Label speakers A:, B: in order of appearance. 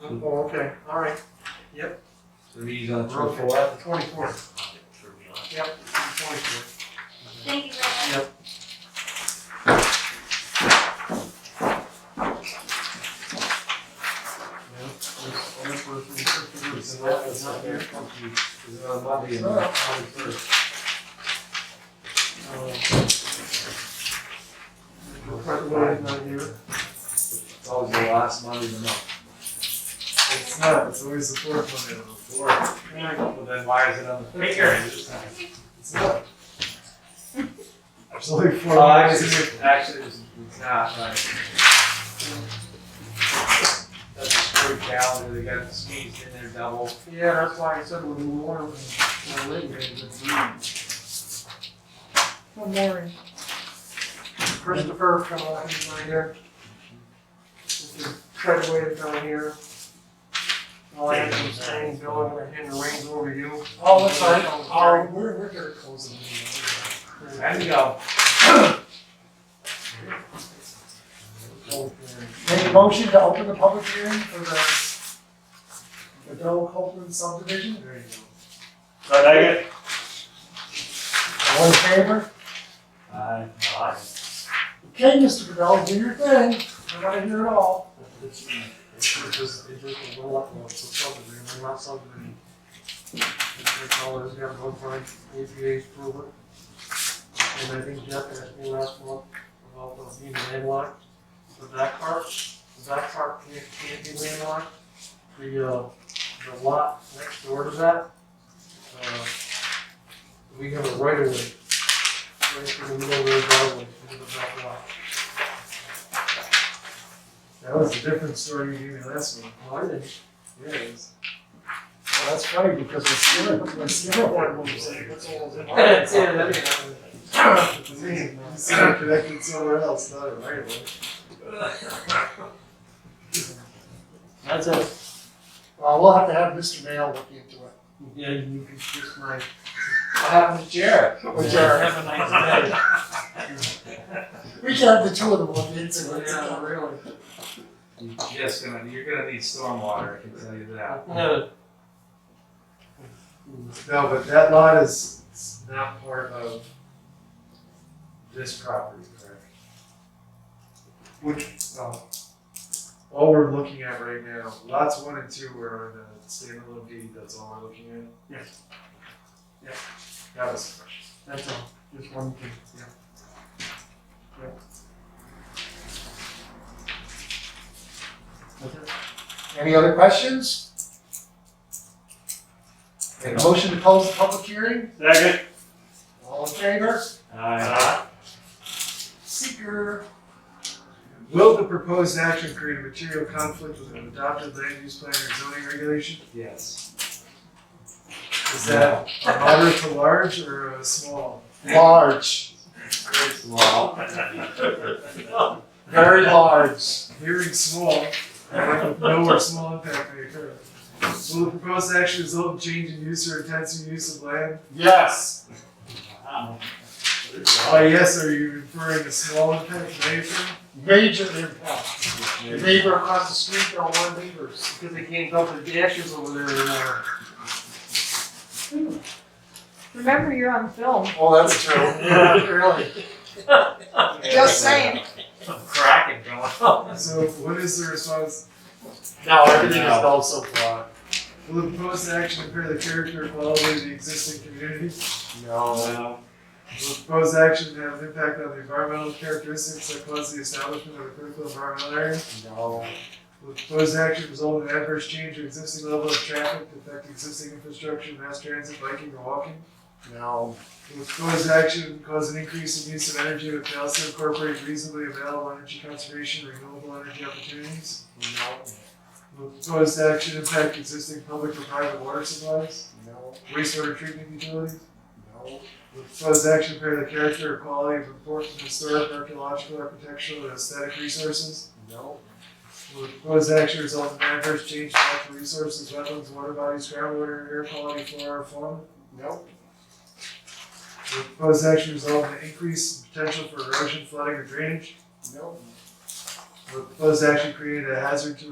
A: Oh, okay, all right, yep,
B: So he's on
A: we're okay,
B: twenty-four.
A: the twenty-fourth, yep, twenty-fourth.
C: Thank you very much.
A: Yeah, this other person, this person
B: It's
A: is
B: not,
A: not-
B: it's
A: is
B: not
A: not
B: there.
A: here.
B: It's on Monday and
A: Uh,
B: twenty-first.
A: Uh, Mr. President is not here.
B: It's always the last Monday of the month.
D: It's not, it's always the fourth one in the fourth.
B: Well, then why is it on the
D: Take
B: third?
D: care. It's not. There's only four
B: Well,
D: lines
B: actually,
D: here.
B: it's- actually, it's it's not, right. That's a screw calendar, they got sneezed in there double.
A: Yeah, that's why I said we're more, we're late, it's
E: One more.
A: Christopher from uh, he's not here. Mr. Treadway is not here. All I have to say, Bill, I'm gonna hand the reins over to you.
D: Oh, that's fine. Um, we're, we're gonna close the meeting.
B: There you go.
D: Make a motion to open the public hearing for the, the Doe Copeland subdivision.
A: There you go.
F: Second.
D: All in favor?
B: Aye.
D: Okay, Mr. Bedell, do your thing. I wanna hear it all.
A: It's just, it's just a roll up, it's a subdivision, we're not subdivision. That's all there's got to go for, APA's approval. And I think Jeff asked me last month about the being landlocked, the back part, the back part can't, can't be landlocked. The, uh, the lot next door to that, uh, we have a right of way. Right through the middle of the driveway, into the back lot.
D: That was a different story you gave me last one.
A: Well, Oh, I didn't
D: Yeah, it is. Well, that's funny, because we're still, we're still one more saying, that's all.
A: That's it, that'd be
D: Man, you see it connected somewhere else, not in right away.
A: That's it.
D: Well, we'll have to have Mr. Mail look into it.
A: Yeah, you can kiss my.
B: What happened to Jared?
D: Which are,
B: Have a nice day.
D: we can have the two of them look into it.
A: Yeah, really.
B: You're just gonna, you're gonna need stormwater, I can tell you that.
A: No,
D: No, but that lot is it's not part of this property, correct?
A: which,
D: So, all we're looking at right now, lots one and two are in the standalone deed, that's all we're looking at?
A: Yes.
D: Yeah. That was the question.
A: that's all, just one thing, yeah. Yeah. That's it.
D: Any other questions? Make a motion to close the public hearing?
F: Second.
D: All in favor?
B: Aye.
D: Uh, Seeker. Will the proposed action create a material conflict with an adopted land use plan or zoning regulation?
B: Yes.
D: Is that a moderate to large or a small?
B: Large. Well,
D: Very large. Hearing small, no or small impact may occur. Will the proposed action result in change in use or intensity of use of land? Yes. By yes, are you referring to small impact may occur?
A: Major impact,
D: The neighbor across the street, there are one neighbors.
A: because they can't dump the dashes over there anymore.
E: Remember, you're on film.
D: Oh, that's true.
A: Really?
E: Just saying.
B: Cracking going.
D: So what is the response?
A: No,
B: everything is
A: all so far.
D: Will the proposed action impair the character or quality of the existing community?
B: No.
D: Will the proposed action have an impact on the environmental characteristics that cause the establishment of a critical environmental area?
B: No.
D: Will the proposed action result in adverse change to existing level of traffic, affect existing infrastructure, mass transit, biking, or walking?
B: No.
D: Will the proposed action cause an increase in use of energy with also incorporate reasonably available energy conservation, and renewable energy opportunities?
B: No.
D: Will the proposed action impact existing public or private water supplies?
B: No.
D: wastewater treatment utilities.
B: No.
D: The proposed action impair the character or quality of important historic, archaeological, architectural, and aesthetic resources.
B: No.
D: Will the proposed action result in adverse change to natural resources, wetlands, water bodies, groundwater, air quality, flora, or fauna?
B: No.
D: Will the proposed action result in an increase in potential for erosion, flooding, or drainage?
B: No.
D: Will the proposed action create a hazard to